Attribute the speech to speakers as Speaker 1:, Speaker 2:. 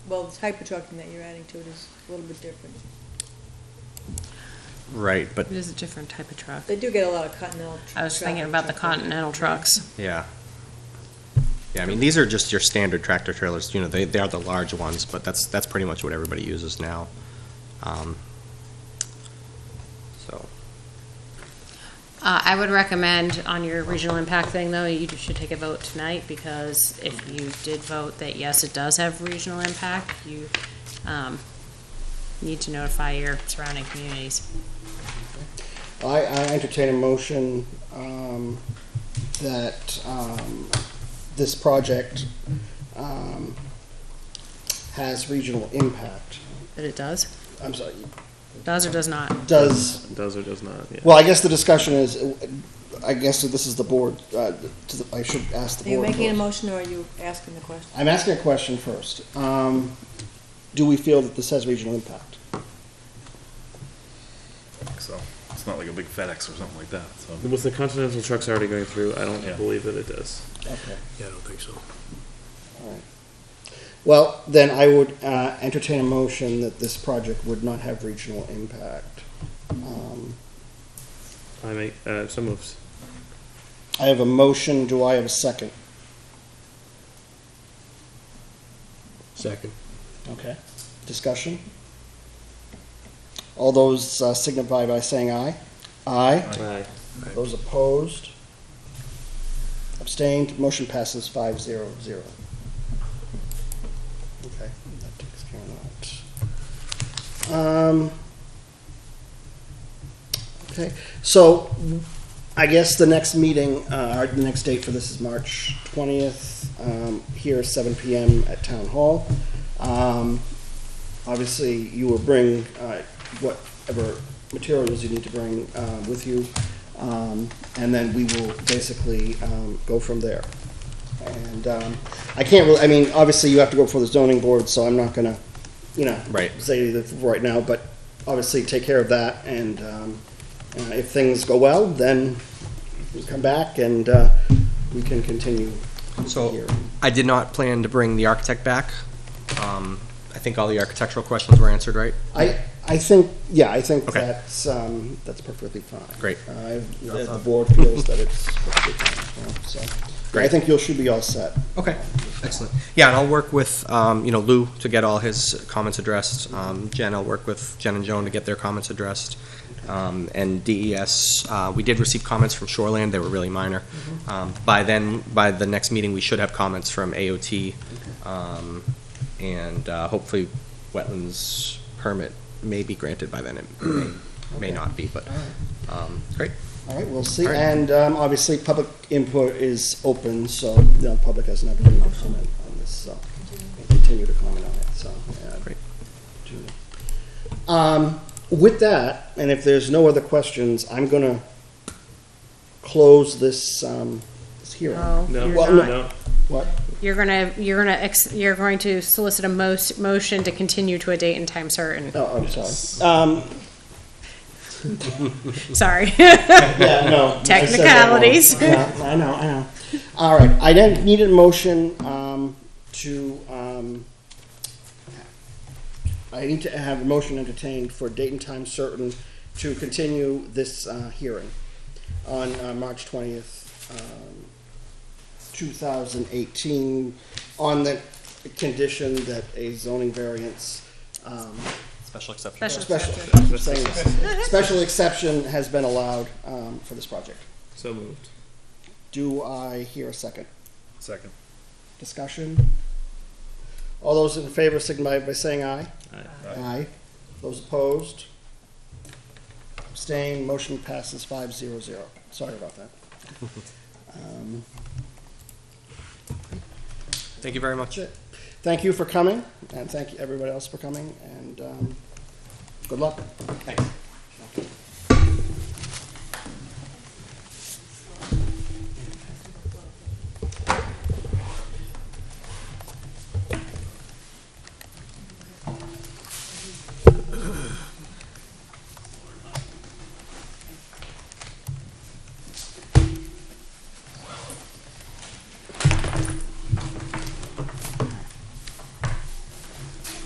Speaker 1: well, the type of trucking that you're adding to it is a little bit different.
Speaker 2: Right, but,
Speaker 3: It is a different type of truck.
Speaker 1: They do get a lot of continental. tr-
Speaker 3: I was thinking
Speaker 1: traffic
Speaker 3: about the
Speaker 1: trucking.
Speaker 3: Continental trucks.
Speaker 2: yeah. Yeah, I mean, these are just your standard tractor trailers, you know, they, they are the large ones, but that's, that's pretty much what everybody uses now. Um, So,
Speaker 3: Uh, I would recommend on your regional impact thing, though, you should take a vote tonight, because if you did vote that yes, it does have regional impact, you, um, need to notify your surrounding communities.
Speaker 4: I, I entertain a motion um, that um, this project um, has regional impact.
Speaker 3: That it does?
Speaker 4: I'm sorry,
Speaker 3: Does or does not?
Speaker 4: does,
Speaker 5: Does or does not, yeah.
Speaker 4: well, I guess the discussion is, I guess that this is the board, uh, to the- I should ask the
Speaker 1: Are
Speaker 4: board.
Speaker 1: you making a
Speaker 4: first.
Speaker 1: motion or are you asking the question?
Speaker 4: I'm asking a question first. Um, Do we feel that this has regional impact?
Speaker 6: So it's not like a big FedEx or something like that. So
Speaker 5: With the Continental trucks already going through, I don't
Speaker 6: Yeah.
Speaker 5: believe that it does.
Speaker 4: Okay.
Speaker 7: Yeah, I don't think so.
Speaker 4: Well, then I would uh, entertain a motion that this project would not have regional impact. Um,
Speaker 5: I make, uh, so moves.
Speaker 4: I have a motion, do I have a second?
Speaker 7: Second.
Speaker 4: Okay. Discussion? All those uh, signify by saying aye. Aye.
Speaker 5: Aye.
Speaker 4: Those opposed? Abstained, motion passes five zero zero. Okay, that takes care of that. Um, Okay, so I guess the next meeting, uh, or the next date for this is March twentieth, um, here at seven PM at Town Hall. Um, obviously, you will bring, uh, whatever materials you need to bring, uh, with you. Um, and then we will basically, um, go from there. And, um, I can't really, I mean, obviously, you have to go before the zoning board, so I'm not gonna, you know.
Speaker 2: Right.
Speaker 4: Say that right now, but obviously, take care of that, and, um, uh, if things go well, then we come back and, uh, we can continue
Speaker 2: so
Speaker 4: here.
Speaker 2: I did not plan to bring the architect back. Um, I think all the architectural questions were answered, right?
Speaker 4: I, I think, yeah, I think
Speaker 2: Okay.
Speaker 4: that's, um, that's perfectly fine.
Speaker 2: Great.
Speaker 4: Uh, The the board feels that it's perfectly fine, yeah, so. I
Speaker 2: Great.
Speaker 4: think you should be all set.
Speaker 2: Okay, excellent. Yeah, and I'll work with, um, you know, Lou to get all his comments addressed. Um, Jen, I'll work with Jen and Joan to get their comments addressed. Um, and DES, uh, we did receive comments from Shoreland, they were really minor.
Speaker 4: Mm-hmm.
Speaker 2: Um, by then, by the next meeting, we should have comments from AOT, um, and, uh, hopefully wetlands permit may be granted by then. It may, may
Speaker 4: Okay.
Speaker 2: not be, but,
Speaker 4: All right.
Speaker 2: um, great.
Speaker 4: All right, we'll see.
Speaker 2: All right.
Speaker 4: And um, obviously, public input is open, so the public has an opportunity to comment on this, so we'll continue to comment on it, so. yeah.
Speaker 2: Great.
Speaker 4: Um, With that, and if there's no other questions, I'm going to close this um, this hearing.
Speaker 3: No,
Speaker 5: No,
Speaker 3: you're
Speaker 4: Well,
Speaker 3: not.
Speaker 5: no,
Speaker 4: What?
Speaker 3: You're gonna, you're gonna, ex- you're going to solicit a most, motion to continue to a date and time certain.
Speaker 4: Oh, I'm sorry. Um,
Speaker 3: Sorry.
Speaker 4: Yeah, no. I said that wrong.
Speaker 3: Technicalities.
Speaker 4: Yeah, I know, I know. All right, I then need a motion um, to, um, I need to have a motion entertained for date and time certain to continue this uh, hearing on uh, March 20th, um, 2018, on the condition that a zoning variance um,
Speaker 2: Special exception.
Speaker 3: Special
Speaker 4: Special, I'm saying this. special exception has been allowed um, for this project.
Speaker 5: so moved.
Speaker 4: Do I hear a second?
Speaker 6: second.
Speaker 4: Discussion? All those in favor signify by saying aye.
Speaker 5: Aye.
Speaker 4: Aye. Those opposed? Abstain. motion passes five zero zero. Sorry about that. Um,
Speaker 2: Thank you very much.
Speaker 4: That's it. Thank you for coming, and thank you everybody else for coming, and um, good luck.
Speaker 2: Thanks.